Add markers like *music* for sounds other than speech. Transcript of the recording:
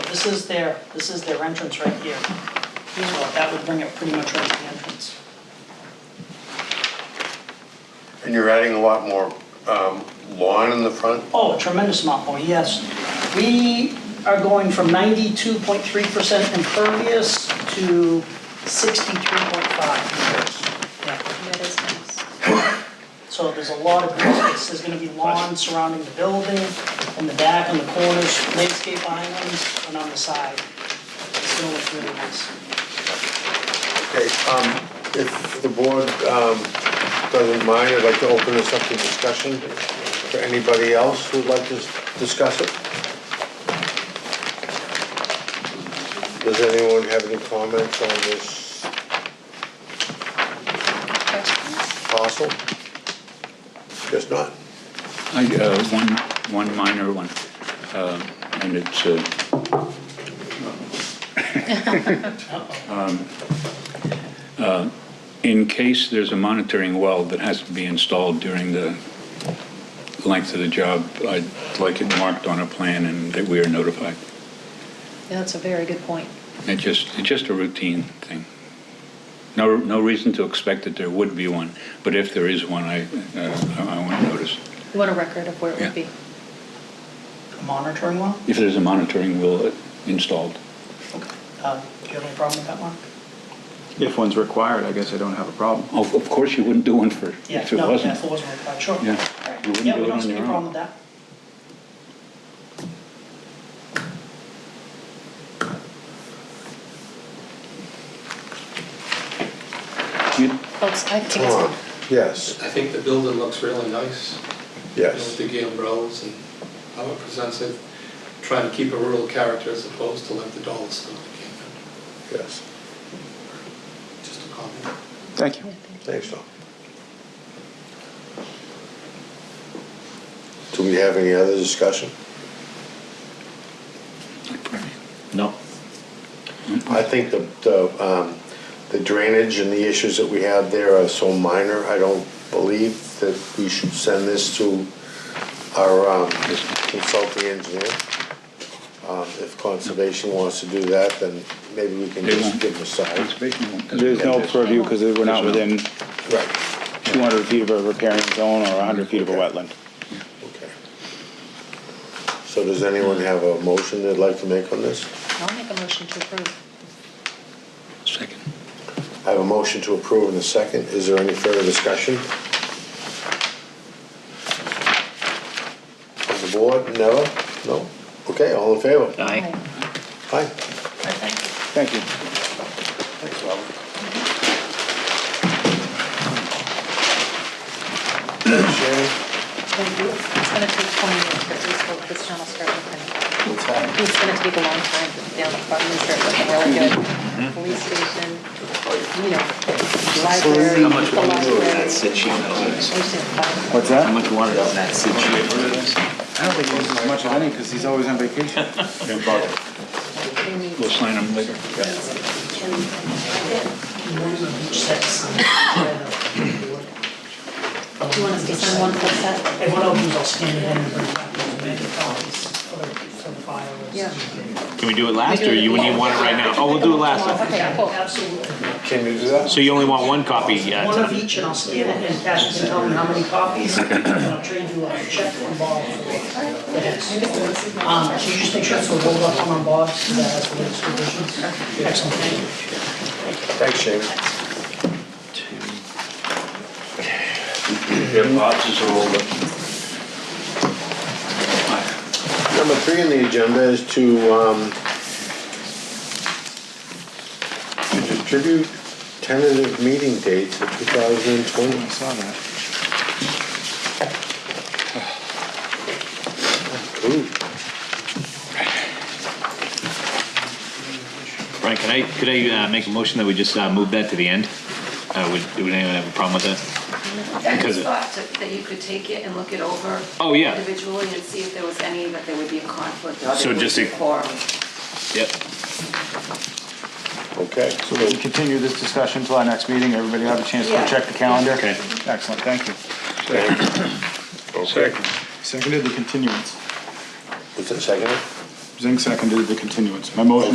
this is their, this is their entrance right here. So that would bring it pretty much right to the entrance. And you're adding a lot more um, lawn in the front? Oh, a tremendous amount more, yes. We are going from 92.3% impervious to 63.5. Yeah. That is nice. So there's a lot of green space, there's gonna be lawn surrounding the building, in the back, in the corners, landscape islands, and on the side. It's gonna look really nice. Okay, um, if the board um, doesn't mind, I'd like to open this up to discussion for anybody else who'd like to s- discuss it. Does anyone have any comments on this Questions? parcel? Just not. I, uh, one, one minor one, Um, and it's, uh, *laughs* um, uh, in case there's a monitoring well that has to be installed during the length of the job, I'd like it marked on a plan and that we are notified. Yeah, that's a very good point. It just, it's just a routine thing. No, no reason to expect that there would be one, but if there is one, I, uh, I I want to notice. You want a record of where it Yeah. would be. The Monitoring one, If there's a monitoring wheel installed. uh, do you have any problem with that one? If one's required, I guess I don't have a problem. Oh, Of, of course, you wouldn't do one for, Yeah, if it no, yeah, wasn't. if it wasn't required, sure. Yeah, All right. you wouldn't Yeah, do we it don't on see any your problem with own. that. You- Folks, I think it's, Lawn, Yes, I think the building looks really nice. yes. With the gambrels and how it presents it, trying to keep a rural character as opposed to like the dollar store that came in. Yes, Just a comment. Thank you. thanks, Tom. Do we have any other discussion? No. I think the, the, um, the drainage and the issues that we have there are so minor, I don't believe that we should send this to our, um, consulting engineer. Um, if conservation wants to do that, then maybe we can They just won't. give them a side. Conservation won't- There's no purview because we're not There's no- within Right, 200 feet of a riparian zone or 100 feet of a wetland. okay. So does anyone have a motion they'd like to make on this? I'll make a motion to approve. Second. I have a motion to approve in a second. Is there any further discussion? On the board, no? No? Okay, all in favor? Aye. Aye. Thank you. Thanks, Robert. Thanks, Sharon. It's gonna take twenty years for these folks, this town will start looking. What's happening? It's gonna take a long time for down the farm to start looking really good. Police station, you know, library, the library. That's it, she What's that? much water does that sit? I don't think he uses much of any because he's always on vacation. We'll sign them later. Just have to sign. Do you want us to sign one full set? If one opens, I'll scan it in and bring it back and make it copies for the, for the file. Yeah. Can we do it last, or you wouldn't even want it right now? Oh, we'll do it last. Okay, cool. Absolutely. Can you do that? So you only want one copy? yeah. One of each, and I'll scan it, and Cash can tell me how many copies, and I'll trade you a check from Bob for the next. Um, so you just make sure it's a roll up on Bob, so that has the latest revisions. Excellent, thank you. Thanks, Sharon. Yeah, boxes are all up. Number three on the agenda is to, um, to distribute tentative meeting dates for 2020. I saw that. Ooh. Brian, can I, could I uh, make a motion that we just uh, move that to the end? Uh, Would would anyone have a problem with that? That Because was it- thought to- that you could take it and look it over Oh, yeah. individually and see if there was any that there would be a conflict or So there would just be a- quorum. Yep. Okay, So we continue this discussion till our next meeting. Everybody have a chance to check the calendar? Okay. Excellent, thank you. okay. Seconded the continuance. Was it seconded? Zink seconded the continuance. My motion